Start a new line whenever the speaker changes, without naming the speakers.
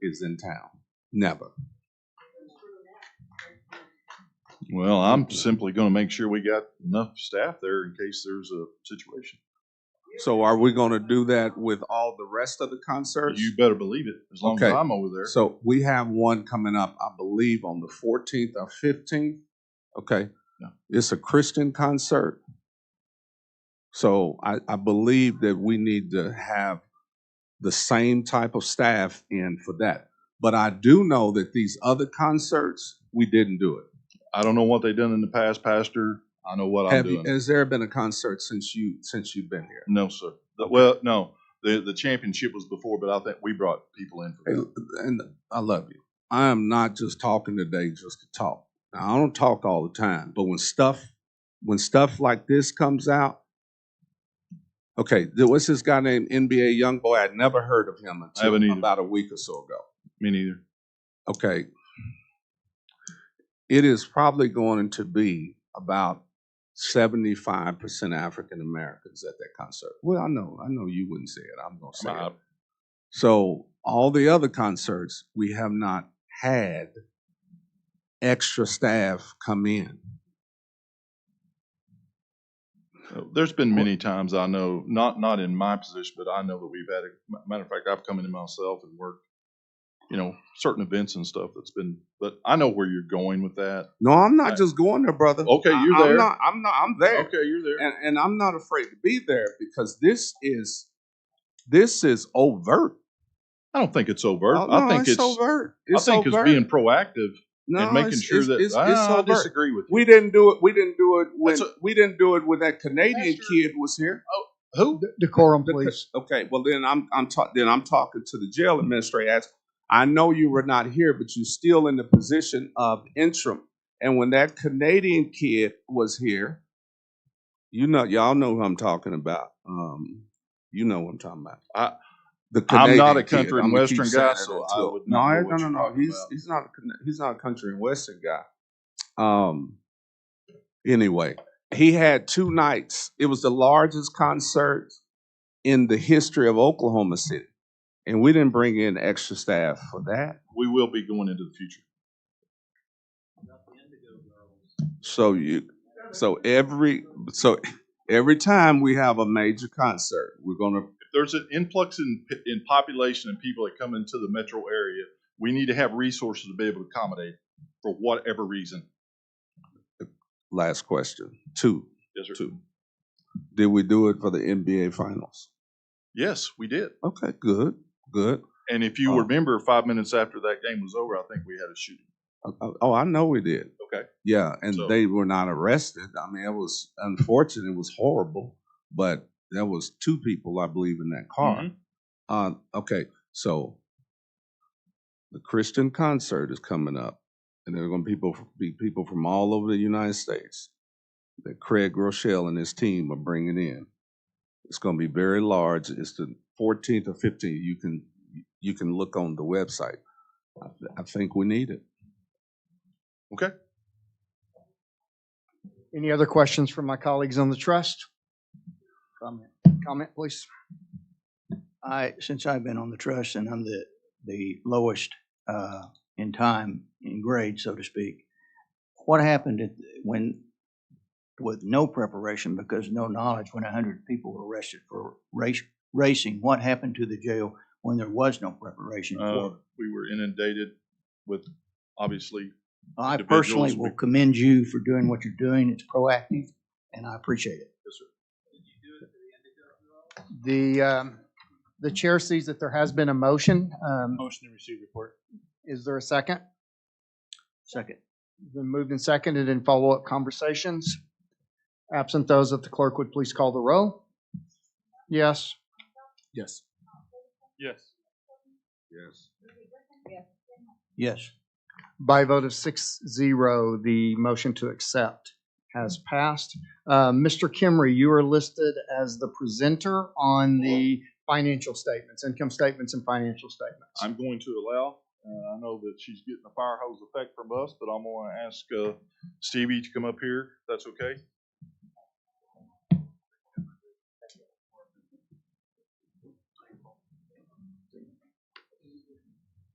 natives in town. Never.
Well, I'm simply gonna make sure we got enough staff there in case there's a situation.
So are we gonna do that with all the rest of the concerts?
You better believe it, as long as
Okay.
I'm over there.
So we have one coming up, I believe, on the fourteenth or fifteenth. Okay,
Yeah.
it's a Christian concert. So I, I believe that we need to have the same type of staff in for that. But I do know that these other concerts, we didn't do it.
I don't know what they done in the past, Pastor. I know what I'm
Have you,
doing.
has there been a concert since you, since you've been here?
No, sir. The- Well, no, the, the championship was before, but I think we brought people in for
Hey,
that.
l- and I love you. I am not just talking today just to talk. Now, I don't talk all the time, but when stuff when stuff like this comes out, okay, there was this guy named NBA Youngboy. I'd never heard of him
haven't
until
either.
about a week or so ago.
Me neither.
Okay. It is probably going to be about seventy-five percent African Americans at that concert. Well, I know, I know you wouldn't say it. I'm gonna say it.
I-
So all the other concerts, we have not had extra staff come in.
Uh, There's been many times I know, not, not in my position, but I know that we've had, a matter of fact, I've come in myself and worked, you know, certain events and stuff that's been, but I know where you're going with that.
No, I'm not
Right.
just going there, brother.
Okay,
I-
you're
I'm
there.
not- I'm not. I'm there,
Okay, you're there.
and, and I'm not afraid to be there because this is this is overt.
I don't think it's overt.
Oh,
I
no,
think it's,
overt.
I
It's
think
overt.
it's being proactive
No,
and making
it's-
sure
it's-
that
it's, it's,
I, I
overt.
disagree with you.
We didn't do it. We didn't do it when
That's a-
we didn't do it when that Canadian
Pastor-
kid was here.
Who?
Decorum,
The co-
please.
Okay, well then I'm I'm talk, then I'm talking to the jail administrator. As I know you were not here, but you're still in the position of interim. And when that Canadian kid was here, you know, y'all know who I'm talking about. Um, you know what I'm talking about.
I-
the
I'm not a
Canadian kid.
country and
I'ma keep
western
saying
guy,
that
so
until-
I would
no,
not
I-
know
no,
what
no,
you're
no.
talking
He's
about.
he's not a Can- he's not a country and western guy. Um. Anyway, he had two nights. It was the largest concert in the history of Oklahoma City. And we didn't bring in extra staff for that.
We will be going into the future.
So you, so every, so every time we have a major concert, we're gonna,
If there's an influx in, in population and people that come into the metro area, we need to have resources to be able to accommodate for whatever reason.
last question, two,
Yes, sir.
two. Did we do it for the NBA finals?
Yes, we did.
Okay, good, good.
And if you
Oh.
remember, five minutes after that game was over, I think we had a shooting.
Oh, Oh, oh, I know we did.
Okay.
Yeah, and
So-
they were not arrested. I mean, it was unfortunate, it was horrible, but there was two people, I believe, in that car.
Mhm.
Uh, okay, so the Christian concert is coming up, and there are going to people be people from all over the United States that Craig Rochelle and his team are bringing in. It's going to be very large. It's the 14th or 15th. You can you can look on the website. I, th- I think we need it.
Any other questions from my colleagues on the trust? Comment, comment, please.
I, since I've been on the trust and I'm the, the lowest uh, in time, in grade, so to speak, what happened if- when, with no preparation because no knowledge, when hundred people were arrested for race, racing, what happened to the jail when there was no preparation
Uh,
for?
we were inundated with, obviously,
I
individuals
personally will
we-
commend you for doing what you're doing. It's proactive and I appreciate it.
The, um, the chair sees that there has been a motion. Um,
Motion to receive report.
Is there a second?
Second.
Been moved and seconded in follow-up conversations. Absent those, if the clerk would please call the roll. Yes.
Yes.
Yes.
Yes.
Yes.
By a vote of six zero, the motion to accept has passed. Uh, Mr. Kimry, you are listed as the presenter on the financial statements, income statements and financial statements.
I'm going to allow, uh, I know that she's getting a fire hose effect from us, but I'm gonna ask, uh, Stevie to come up here, if that's okay?